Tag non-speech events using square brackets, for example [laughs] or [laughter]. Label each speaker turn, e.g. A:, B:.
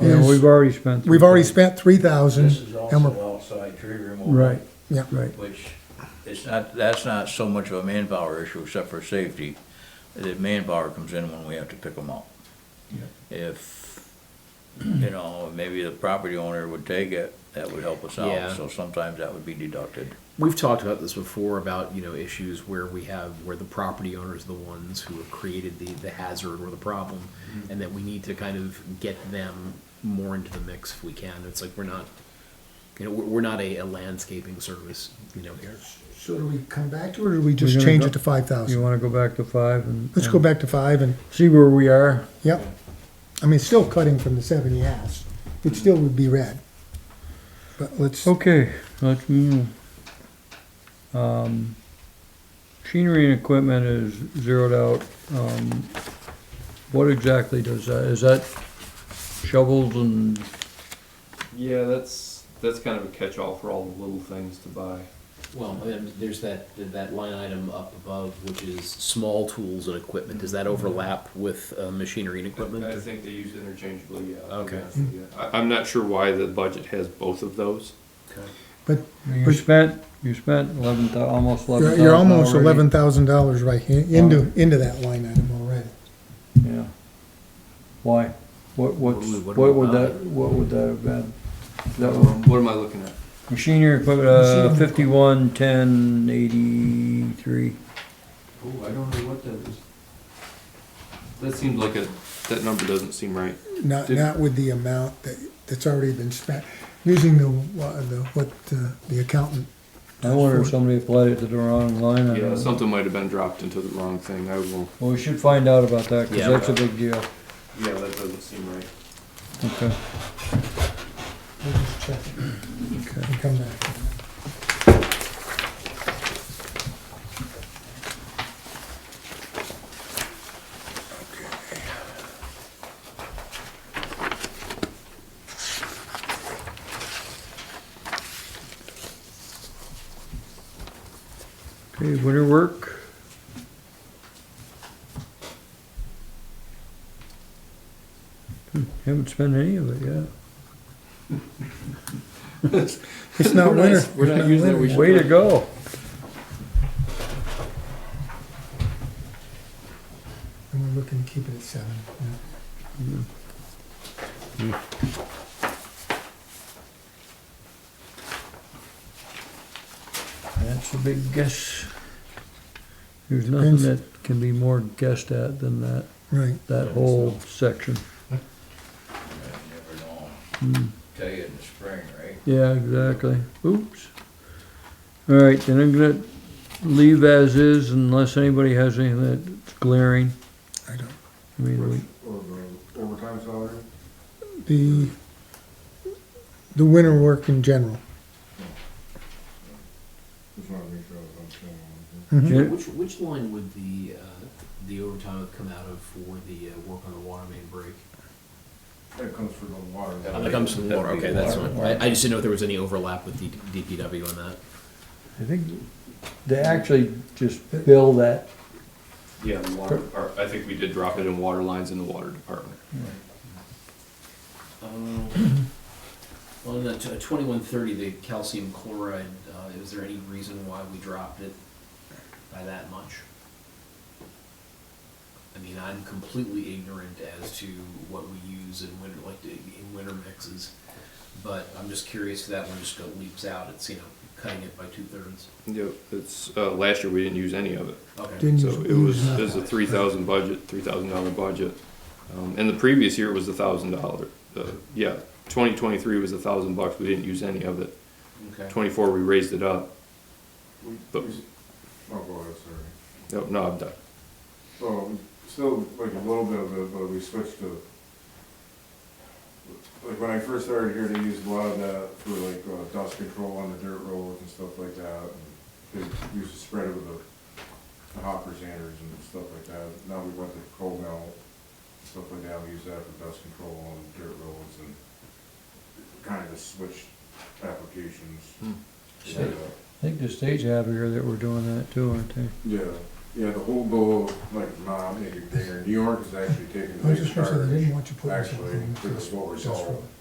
A: we've already spent.
B: We've already
A: $3,000.
B: spent three thousand.
C: This is also outside tree removal.
A: Mm. Right,
B: Yeah,
A: right.
C: Which, it's not, that's not so much of a manpower issue except for safety. The manpower comes in when we have to pick them up. If, you know, maybe the property owner would take it, that would help us
D: Yeah.
C: out, so sometimes that would be deducted.
D: We've talked about this before about, you know, issues where we have, where the property owners are the ones who have created the, the hazard or the problem, and that we need to kind of get them more into the mix if we can. It's like, we're not, you know, we're, we're not a, a landscaping service, you know, here.
B: So do we come back to it, or do we just
A: gonna
B: change
A: go-
B: it to five
A: You
B: thousand?
A: wanna go back to five and?
B: Let's go
A: and
B: back to five and,
A: See where we are.
B: yep. I mean, it's still cutting from the seven he asked. It still would be red. But let's,
A: Okay, let's move. Um, machinery and equipment is zeroed out. Um, what exactly does that, is that shovels and,
E: Yeah, that's that's kind of a catch-all for all the little things to buy.
D: Well, then there's that, that line item up above, which is small tools and equipment. Does that overlap with, uh, machinery and equipment?
E: I think they use interchangeably. Yeah. I'll be
D: Okay.
E: honest with you. I, I'm not sure why the budget has both of those.
B: but
A: you
B: But-
A: spent, you spent eleven thou, almost eleven
B: you're,
A: thousand
B: you're almost
A: already.
B: eleven thousand dollars right in- into, into that line item already.
A: Yeah. Why? What, what's,
D: What
A: what
D: would-
A: would
D: what
A: that,
D: about
A: what would that have been? That was
E: Um, what am I looking at?
A: machinery equipment, uh, fifty-one, ten, eighty-three.
E: Oh, I don't know what that is. That seems like a that number doesn't seem right.
B: Not,
E: Did-
B: not with the amount that, that's already been spent, using the, wha- the, what, uh, the accountant.
A: I wonder if somebody applied it to the wrong line. I
E: Yeah,
A: don't know.
E: something might have been dropped into the wrong thing. I will.
A: Well, we should find out about that, cause
D: Yeah.
A: that's a big deal.
E: Yeah, that doesn't seem right.
A: Okay.
B: We'll just check it and come back.
A: Okay, winter work. Hmm, Haven't spent any of it yet.
E: [laughs]
B: It's not
E: We're not-
B: winter.
E: we're not
B: It's
E: using it,
B: winter.
E: we should-
A: Way to go.
B: And we're looking to keep it at seven. yeah.
A: That's a big guess. There's nothing
B: Depends.
A: that can be more guessed at than that,
B: Right.
A: that whole section.
C: You never know.
A: Hmm.
C: Tell you in the spring, right?
A: Yeah, exactly. Oops. All right, then I'm gonna leave as is unless anybody has anything that's glaring.
B: I don't.
A: I mean, we,
F: Or the overtime salary?
B: The, the winter work in general.
F: Just wanted to make sure I was understanding.
A: Jen-
D: Which, which line would the, uh, the overtime have come out of for the, uh, work on the water main break?
F: That comes from the water.
D: Oh, That comes from the water, okay, that's fine. I, I just didn't know if there was any overlap with D- DPW on that.
A: I think they actually just bill that.
E: Yeah, the water. Or I think we did drop it in water lines in the water department.
D: Well, in Um, the uh, twenty-one thirty, the calcium chloride, uh, is there any reason why we dropped it by that much? I mean, I'm completely ignorant as to what we use in winter, like, in winter mixes, but I'm just curious if that one just go leaps out, it's, you know, cutting it by two-thirds.
E: Yep. It's uh, last year we didn't use any of it.
D: Okay,
B: Didn't
E: So
B: use-
E: it was,
B: use
E: it
B: nothing.
E: was a three thousand budget, three thousand dollar budget. Um, and the previous year was a thousand dollar, uh, yeah, twenty twenty-three was a thousand bucks, we didn't use any of it.
D: okay.
E: Twenty-four, we raised it up.
F: We-
E: But-
F: we- Oh, go ahead, sorry.
E: No, no, I'm done.
F: So, we still like a little bit of it, but we switched to, like, when I first started here, they used a lot of that for like uh, dust control on the dirt roads and stuff like that. and They used to spread it with the the hopper sanders and stuff like that. Now we went to coal mill, stuff like that. We use that for dust control on dirt roads and kind of just switched applications. uh,
E: Hmm.
F: Yeah.
A: Sure. I think the state's happier that we're doing that too, aren't they?
F: Yeah, yeah, the whole goal, like, nah, I'm taking bigger. New York is actually taking
B: I
F: a
B: was
F: big
B: just gonna say, they
F: charge.
B: didn't want you putting.
F: Actually,
B: something in
F: for the slower
B: industrial.
F: salt.